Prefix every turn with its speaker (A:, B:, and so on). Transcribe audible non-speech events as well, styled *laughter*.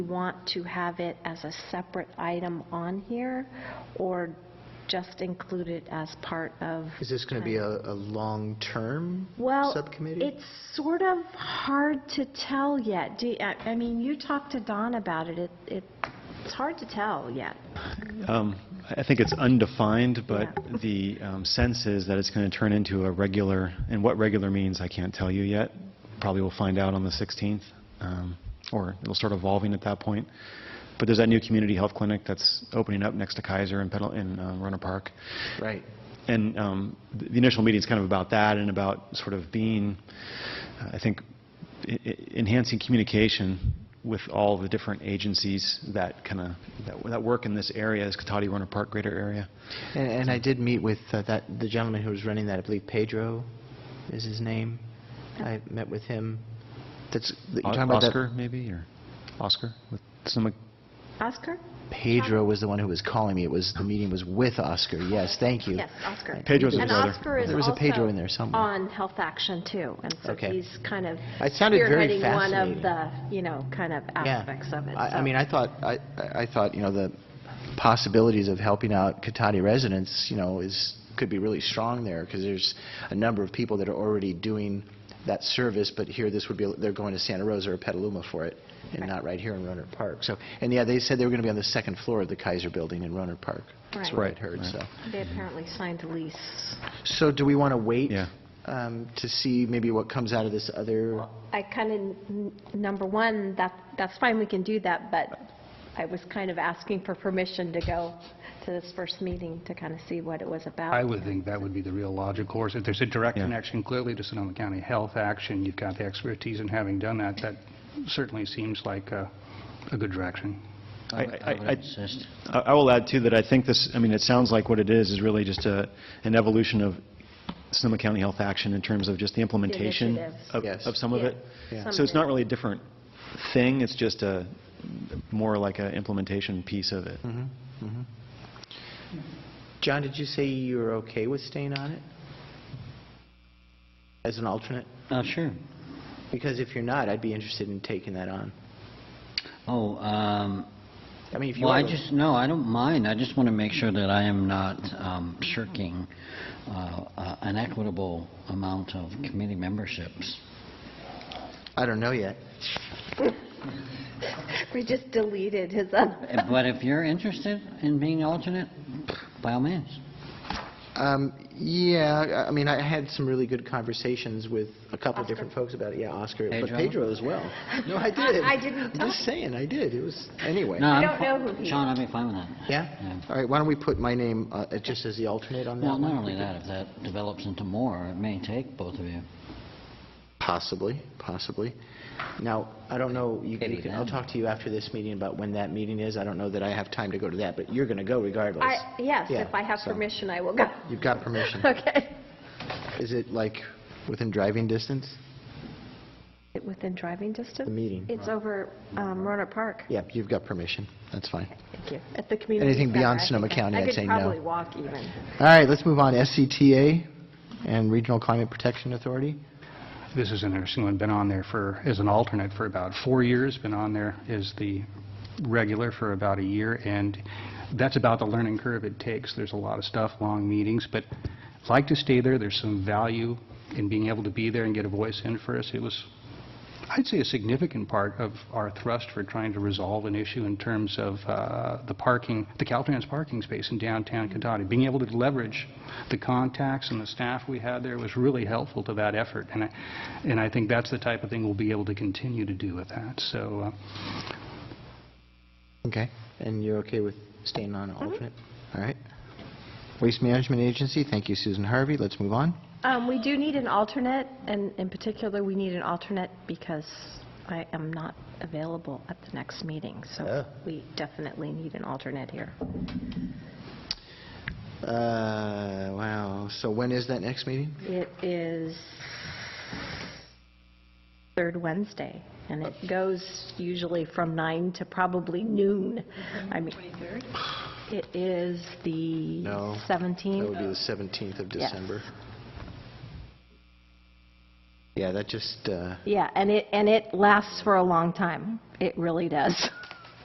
A: want to have it as a separate item on here, or just include it as part of?
B: Is this going to be a, a long-term subcommittee?
A: Well, it's sort of hard to tell yet. Do, you- I I mean, you talked to Don about it, It- it's hard to tell yet.
C: Um, I think it's undefined, but
A: Yeah.
C: the um, sense is that it's going to turn into a regular, and what regular means, I can't tell you yet. Probably we'll find out on the 16th, um, or it'll start evolving at that point. But there's that new community health clinic that's opening up next to Kaiser in Pedal, in uh, Runner Park.
B: Right.
C: And um, th- the initial meeting's kind of about that and about sort of being, uh, I think, e- e- enhancing communication with all the different agencies that kind of, that- that work in this area, this Katati Runner Park greater area.
B: And, and I did meet with uh, that, the gentleman who was running that, I believe Pedro is his name. I met with him. That's, you're
C: O-
B: talking about that-
C: Oscar, maybe, or Oscar with Sonoma
A: Oscar?
B: Pedro was the one who was calling me. It was, the meeting was with Oscar, yes, thank you.
A: Yes, Oscar.
C: Pedro's his
A: And
C: brother.
A: Oscar is
B: There was a Pedro
A: also
B: in there somewhere.
A: on Health Action, too, and so
B: Okay.
A: he's kind of
B: It sounded very
A: spearheading one of
B: fascinating.
A: the, you know, kind of
B: Yeah.
A: aspects of it.
B: I, I
A: so-
B: mean, I thought, I, I I thought, you know, the possibilities of helping out Katati residents, you know, is, could be really strong there, because there's a number of people that are already doing that service, but here, this would be, they're going to Santa Rosa or Petaluma for it, and
A: Right.
B: not right here in Roner Park. So, and yeah, they said they were going to be on the second floor of the Kaiser Building in Roner Park. That's
A: Right.
B: what I'd heard,
C: Right.
B: so.
A: They apparently signed a lease.
B: So do we want to wait?
C: Yeah.
B: um, To see maybe what comes out of this other?
A: I kind of, number one, that, that's fine, we can do that, but I was kind of asking for permission to go to this first meeting to kind of see what it was
D: I
A: about.
D: would think that would be the real logic course. If there's a direct
C: Yeah.
D: connection clearly to Sonoma County Health Action, you've got the expertise in having done that, that certainly seems like uh, a good direction.
C: I- I- I- I I will add, too, that I think this, I mean, it sounds like what it is, is really just a, an evolution of Sonoma County Health Action in terms of just the implementation
A: Initiatives.
C: of
B: Yes.
C: of some of
A: Yeah.
C: it.
A: Yeah.
C: So it's not really a different thing, it's just a, more like an implementation piece of it.
B: John, did you say you were okay with staying on it? As an alternate?
E: Uh, sure.
B: Because if you're not, I'd be interested in taking that on.
E: Oh, um,
B: I mean, if you
E: well,
B: are...
E: I just, no, I don't mind. I just want to make sure that I am not um, shirking uh, uh, an equitable amount of committee memberships.
B: I don't know yet.
A: We just deleted his other,
E: Uh, But if you're interested in being alternate, by all means.
B: Um, Yeah, I- I mean, I had some really good conversations with a couple of different folks about it. Yeah, Oscar, but
E: Pedro?
B: Pedro as well. No,
A: *laughs*
B: I did.
A: I didn't
B: I'm just saying, I did. It was, anyway.
E: No, I'm
A: don't
E: fi-
A: know who he is.
E: Sean, I'd be fine with that.
B: Yeah? All right, why don't we put my name uh, just as the alternate on that
E: Well,
B: one?
E: not only that, if that develops into more, it may take both of you.
B: Possibly, possibly. Now, I don't know, you-
E: Maybe
B: you can- I'll
E: then.
B: talk to you after this meeting about when that meeting is. I don't know that I have time to go to that, but you're going to go regardless.
A: I, yes,
B: Yeah,
A: if I have
B: so-
A: permission, I will go.
B: You've got *laughs* permission.
A: *laughs* Okay.
B: Is it like within driving distance?
A: Within driving distance?
B: The meeting.
A: It's over um, Roanoke Park.
B: Yeah, you've got permission. That's fine.
A: Thank you. At the community
B: Anything
A: center,
B: beyond
A: I think
B: Sonoma
A: I-
B: County, I'd say no.
A: I could probably walk even.
B: All right, let's move on. SCTA and Regional Climate Protection Authority.
D: This is an interesting one, been on there for, as an alternate for about four years, been on there as the regular for about a year, and that's about the learning curve it takes. There's a lot of stuff, long meetings, but I'd like to stay there. There's some value in being able to be there and get a voice in for us. It was, I'd say, a significant part of our thrust for trying to resolve an issue in terms of uh, the parking, the Caltrans parking space in downtown Kentucky. Being able to leverage the contacts and the staff we had there was really helpful to that effort, and I, and I think that's the type of thing we'll be able to continue to do with that. So, uh,
B: Okay. And you're okay with staying on alternate? All right. Waste Management Agency, thank you, Susan Harvey. Let's move on.
A: Um, We do need an alternate, and in particular, we need an alternate because I am not available at the next meeting, so
B: Oh.
A: we definitely need an alternate here.
B: Uh, wow. So when is that next meeting?
A: It is third Wednesday, and it goes usually from nine to probably noon. I mean, It is the
B: No, That would
A: 17th.
B: be the 17th of
A: Yes.
B: December. Yeah, uh, that just, uh,
A: Yeah, and it, and it lasts for a long time. It really does. *laughs*